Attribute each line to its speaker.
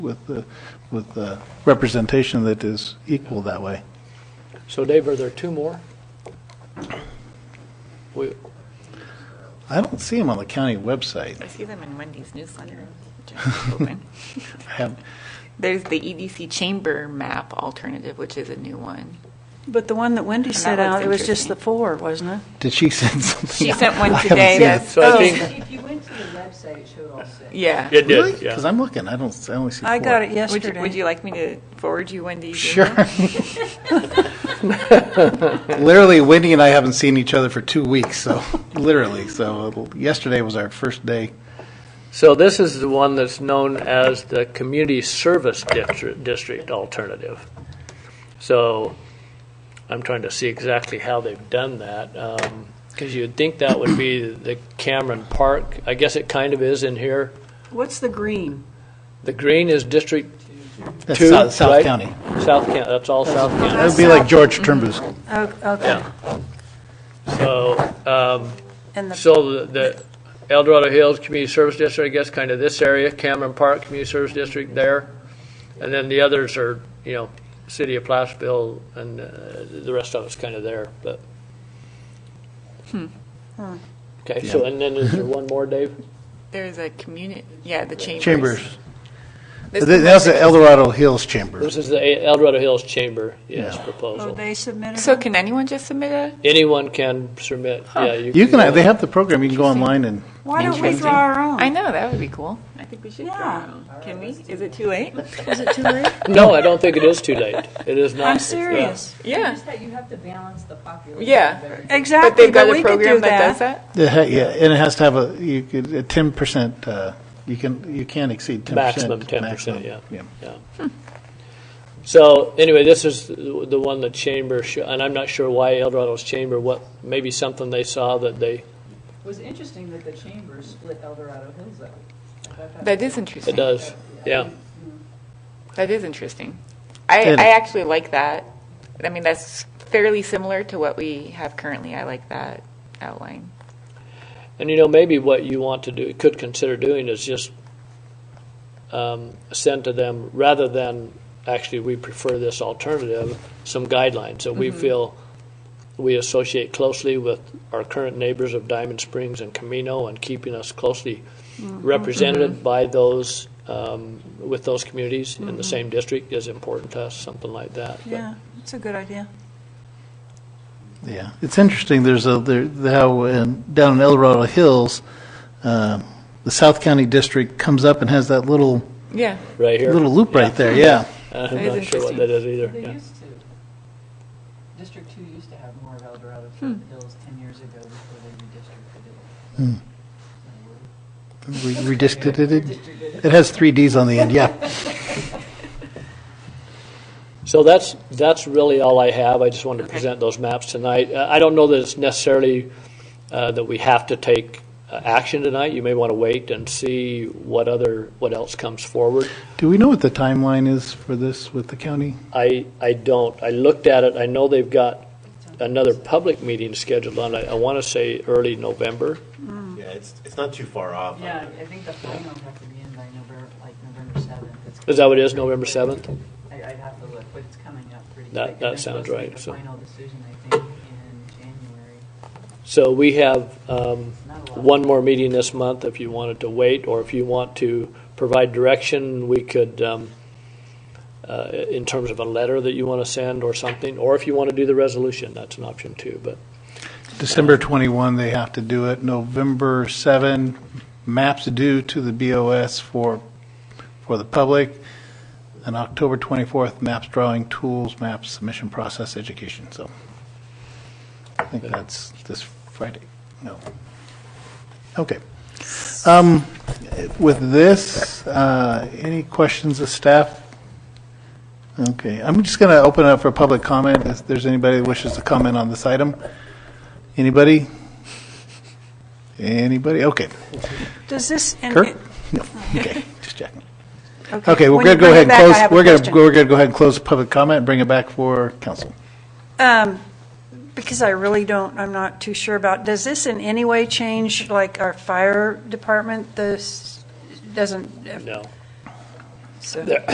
Speaker 1: with, the- with the representation that is equal that way.
Speaker 2: So Dave, are there two more? We,
Speaker 1: I don't see them on the county website.
Speaker 3: I see them in Wendy's newsletter. which I open.
Speaker 1: I have,
Speaker 3: There's the EDC chamber map alternative, which is a new one.
Speaker 4: But the one that Wendy
Speaker 3: that
Speaker 4: set
Speaker 3: looks
Speaker 4: out, it was just
Speaker 3: interesting.
Speaker 4: the four, wasn't it?
Speaker 1: did she send something?
Speaker 3: She sent
Speaker 1: I
Speaker 3: one
Speaker 1: haven't
Speaker 3: today.
Speaker 1: seen it.
Speaker 3: that's-
Speaker 2: so I think,
Speaker 5: If you went to the website, it showed all six.
Speaker 3: Yeah.
Speaker 2: it
Speaker 1: Really?
Speaker 2: did,
Speaker 1: Because
Speaker 2: yeah.
Speaker 1: I'm looking, I don't, I only see four.
Speaker 4: I got
Speaker 3: Would
Speaker 4: it
Speaker 3: you,
Speaker 4: yesterday.
Speaker 3: would you like me to forward you Wendy's?
Speaker 1: Sure.
Speaker 3: email?
Speaker 1: Literally, Wendy and I haven't seen each other for two weeks, so, literally, so yesterday was our first day.
Speaker 2: So this is the one that's known as the Community Service District, District Alternative. So I'm trying to see exactly how they've done that. Um 'cause you'd think that would be the Cameron Park. I guess it kind of is in here.
Speaker 4: What's the green?
Speaker 2: The green is District
Speaker 1: That's
Speaker 2: Two,
Speaker 1: South- South
Speaker 2: right?
Speaker 1: County.
Speaker 2: South County, that's all South County.
Speaker 4: Uh,
Speaker 1: That would be like George Turnbull's.
Speaker 4: Oh, okay.
Speaker 2: So, um,
Speaker 4: And the,
Speaker 2: so the- the El Dorado Hills Community Service District, I guess, kind of this area, Cameron Park Community Service District there. And then the others are, you know, City of Placerville and uh, the rest of it's kind of there, but.
Speaker 4: Hmm.
Speaker 2: Okay, so,
Speaker 1: Yeah.
Speaker 2: and then is there one more, Dave?
Speaker 3: There's a community, yeah, the chambers.
Speaker 1: Chambers.
Speaker 3: This is-
Speaker 1: That's the El Dorado Hills Chambers.
Speaker 2: This is the El Dorado Hills Chamber, yes,
Speaker 1: Yeah.
Speaker 4: oh,
Speaker 2: proposal.
Speaker 4: they submitted
Speaker 3: So
Speaker 4: it?
Speaker 3: can anyone just submit a?
Speaker 2: Anyone can submit, yeah.
Speaker 1: You can, they have the program, you can go online and,
Speaker 4: Why don't we draw our
Speaker 3: I
Speaker 4: own?
Speaker 3: know, that would be cool. I think we should
Speaker 4: draw our Yeah.
Speaker 3: Can we? Is it too late?
Speaker 2: No, I don't think it is too late. It is not.
Speaker 4: I'm
Speaker 1: uh,
Speaker 2: Yeah.
Speaker 4: serious.
Speaker 3: Yeah.
Speaker 5: Just that you have to balance the population.
Speaker 3: Yeah.
Speaker 5: of everything.
Speaker 3: But
Speaker 4: Exactly,
Speaker 3: they've
Speaker 4: but
Speaker 3: got a
Speaker 4: we could
Speaker 3: program
Speaker 4: do
Speaker 3: that does
Speaker 4: that.
Speaker 3: that?
Speaker 1: it ha- yeah, and it has to have a, you could, a ten percent, uh, you can, you can't exceed ten percent.
Speaker 2: Maximum 10%, yeah.
Speaker 1: Yeah.
Speaker 2: Yeah. So anyway, this is the the one the chamber, sho- and I'm not sure why El Dorado's chamber, what, maybe something they saw that they,
Speaker 5: It was interesting that the chamber split El Dorado Hills up.
Speaker 3: That is
Speaker 2: it
Speaker 3: interesting.
Speaker 2: does, yeah.
Speaker 3: That is interesting. I,
Speaker 1: It-
Speaker 3: I actually like that. I mean, that's fairly similar to what we have currently. I like that outline.
Speaker 2: And you know, maybe what you want to do, could consider doing is just um, send to them, rather than, actually, we prefer this alternative, some guidelines that we feel we associate closely with our current neighbors of Diamond Springs and Camino and keeping us closely represented by those, um, with those communities in the same district is important to us, something like that. But-
Speaker 4: Yeah, that's a good idea.
Speaker 1: Yeah, it's interesting, there's a, there, how, in- down in El Dorado Hills, um, the South County District comes up and has that little,
Speaker 3: Yeah.
Speaker 2: Right here.
Speaker 1: little loop right there, yeah.
Speaker 2: I'm
Speaker 3: is
Speaker 2: not sure what
Speaker 3: interesting.
Speaker 2: that is either.
Speaker 5: They
Speaker 2: yeah.
Speaker 5: used to. District Two used to have more of El Dorado
Speaker 2: Hmm.
Speaker 5: Hills ten years ago before they redistricted it.
Speaker 1: Re- Redistricted it, it has three Ds on the end, yeah.
Speaker 2: So that's, that's really all I have. I just wanted to present those maps tonight. Uh, I don't know that it's necessarily uh, that we have to take uh, action tonight. You may want to wait and see what other, what else comes forward.
Speaker 1: Do we know what the timeline is for this with the county?
Speaker 2: I, I don't. I looked at it. I know they've got another public meeting scheduled on, I want to say early November.
Speaker 6: Yeah, it's, it's not too far off.
Speaker 5: Yeah, I think the finals have to be in by November, like November seventh.
Speaker 2: Is that what it is, November 7th?
Speaker 5: I, I'd have to look, but it's coming up pretty quick.
Speaker 2: That- that
Speaker 5: and they're
Speaker 2: sounds
Speaker 5: supposed to make
Speaker 2: right,
Speaker 5: the
Speaker 2: so-
Speaker 5: Final decision, I think, in January.
Speaker 2: So we have um,
Speaker 5: Not a lot.
Speaker 2: one more meeting this month if you wanted to wait, or if you want to provide direction, we could, um, uh, in terms of a letter that you want to send or something, or if you want to do the resolution, that's an option too, but
Speaker 1: December 21, they have to do it. November 7, maps due to the BOS for, for the public. And October 24th, maps drawing tools, maps submission process education. So I think that's this Friday. No. Okay. Um, With this, uh, any questions of staff? Okay, I'm just going to open it up for public comment if there's anybody that wishes to comment on this item. Anybody? Anybody? Okay.
Speaker 4: Does this? and
Speaker 1: Kurt?
Speaker 4: it-
Speaker 1: No, okay, just checking. Okay, we're
Speaker 4: when you
Speaker 1: going to go
Speaker 4: bring it
Speaker 1: ahead and
Speaker 4: back, I
Speaker 1: close,
Speaker 4: have a
Speaker 1: we're going to,
Speaker 4: question.
Speaker 1: we're going to go ahead and close the public comment and bring it back for council.
Speaker 4: Um, because I really don't, I'm not too sure about, does this in any way change, like, our fire department? This doesn't,
Speaker 2: no.
Speaker 7: so.
Speaker 4: There-